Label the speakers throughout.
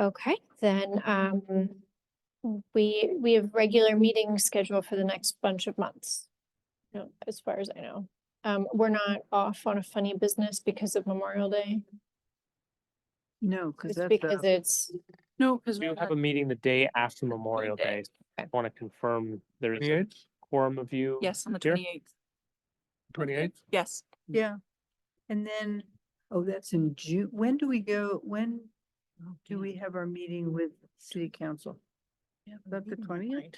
Speaker 1: Okay, then, um, we, we have regular meetings scheduled for the next bunch of months. you know, as far as I know. Um, we're not off on a funny business because of Memorial Day.
Speaker 2: No, because
Speaker 1: It's
Speaker 2: that's,
Speaker 1: because
Speaker 2: a-
Speaker 1: it's,
Speaker 2: no, because
Speaker 3: We have a meeting the day after Memorial
Speaker 2: Day.
Speaker 3: Day. I want to confirm there is a quorum of you.
Speaker 4: Yes, on the
Speaker 3: here? Hmm.
Speaker 4: twenty eighth.
Speaker 5: Twenty eighth?
Speaker 4: Yes.
Speaker 2: yeah. And then, oh, that's in June. When do we go, when do we have our meeting with city council? Is that the twentieth?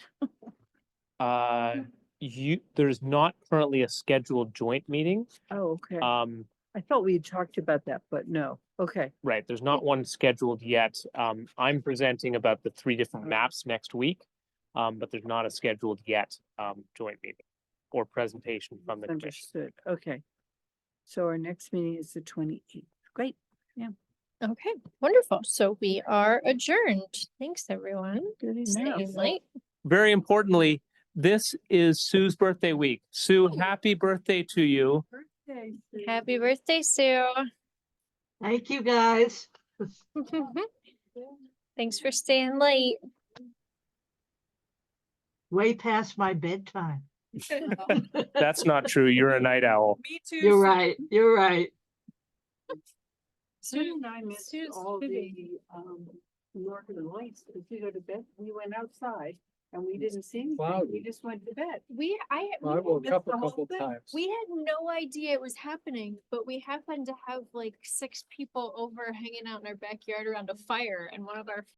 Speaker 3: Uh, you, there's not currently a scheduled joint meeting.
Speaker 2: Oh, okay.
Speaker 3: Um,
Speaker 2: I thought we had talked about that, but no. Okay,
Speaker 3: right, there's not one scheduled yet. Um, I'm presenting about the three different maps next week. Um, but there's not a scheduled yet, um, joint meeting or presentation from the commission.
Speaker 2: understood. Okay. So our next meeting is the twenty-eighth. Great.
Speaker 1: okay, wonderful. So we are adjourned. Thanks, everyone.
Speaker 2: Good
Speaker 1: Staying
Speaker 2: enough.
Speaker 1: late.
Speaker 3: Very importantly, this is Sue's birthday week. Sue, happy birthday to you.
Speaker 2: Birthday, Sue.
Speaker 1: Happy birthday, Sue.
Speaker 6: Thank you, guys.
Speaker 1: Thanks for staying late.
Speaker 6: Way past my bedtime.
Speaker 3: That's not true. You're a night owl.
Speaker 4: Me too.
Speaker 6: You're right, you're right.
Speaker 2: Sue and I missed
Speaker 1: Sue's
Speaker 2: all
Speaker 1: fibbing.
Speaker 2: the, um, northern lights, because we go to bed, we went outside and we didn't see anything. We
Speaker 5: Cloudy.
Speaker 2: just went to bed.
Speaker 1: We, I,
Speaker 5: I woke
Speaker 2: missed
Speaker 5: up a
Speaker 2: the whole
Speaker 5: couple
Speaker 2: thing.
Speaker 5: times.
Speaker 1: We had no idea it was happening, but we happened to have like six people over hanging out in our backyard around a fire and one of our